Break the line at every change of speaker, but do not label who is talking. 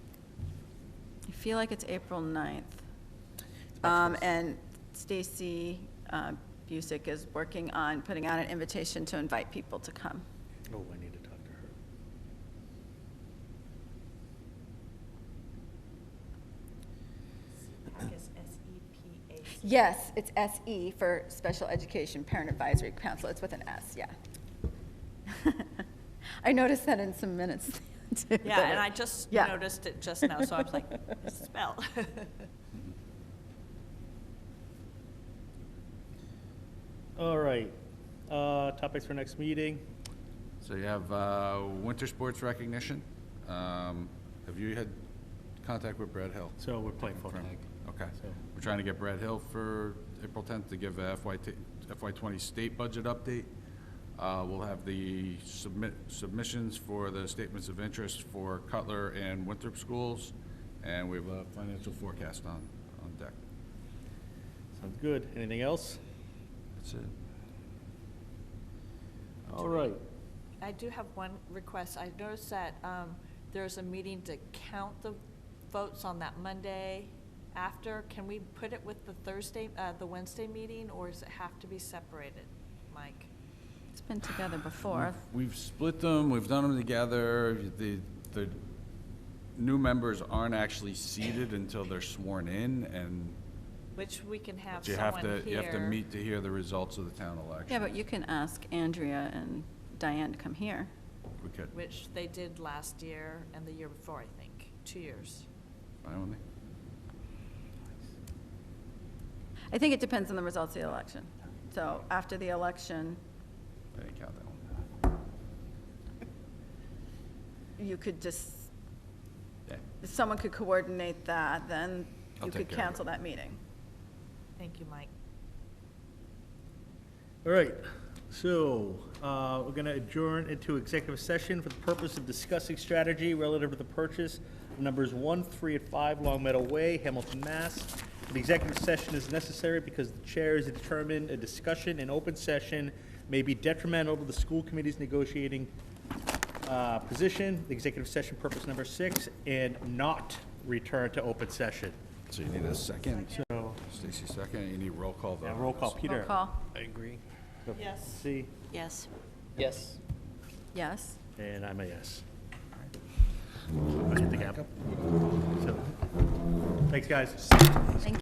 feel like it's April 9th.
about
Um,
close.
and Stacy uh, Busick is working on putting out an invitation to invite people to come.
Oh, I need to talk to her.
Yes, it's SE for Special Education Parent Advisory Council. It's with an S, yeah. I noticed that in some minutes. too,
Yeah,
that
and
it-
I just
Yeah.
noticed it just now, so I was like, spell.
All right, uh, topics for next meeting.
So you have uh, winter sports recognition. Um, Have you had contact with Brad Hill?
So we're playing for
Confirm. Okay.
So-
We're trying to get Brad Hill for April 10th to give a FY t- FY '20 state budget update. Uh, We'll have the submit, submissions for the statements of interest for Cutler and Winthrop schools, and we have a financial forecast on, on deck.
Sounds good. Anything else?
That's it.
All right.
I do have one request. I noticed that um, there's a meeting to count the votes on that Monday after. Can we put it with the Thursday, uh, the Wednesday meeting, or does it have to be separated, Mike?
It's been together before.
We've split them, we've done them together. The, the new members aren't actually seated until they're sworn in, and
Which we can have
but you have
someone here.
to, you have to meet to hear the results of the town election.
Yeah, but you can ask Andrea and Diane to come here.
We could,
Which they did last year and the year before, I think, two years.
fine with me.
I think it depends on the results of the election. So after the election,
I didn't count that one.
you could just,
Yeah.
someone could coordinate that, then
I'll
you could
take care of it.
cancel that meeting.
Thank you, Mike.
All right, so uh, we're going to adjourn into executive session for the purpose of discussing strategy relative to the purchase of numbers 1, 3, and 5 Long Meadow Way, Hamilton, Mass. An executive session is necessary because the chair is determined a discussion in open session may be detrimental to the school committee's negotiating uh, position, executive session purpose number 6, and not return to open session.
So you need a second,
So,
Stacy second, you need roll call vote.
yeah,
on
roll call,
this.
Peter.
Roll call,
I agree.
Yes.
See,
Yes.
Yes.
yes?
and I'm a yes. I'll hit the gap. So, thanks, guys.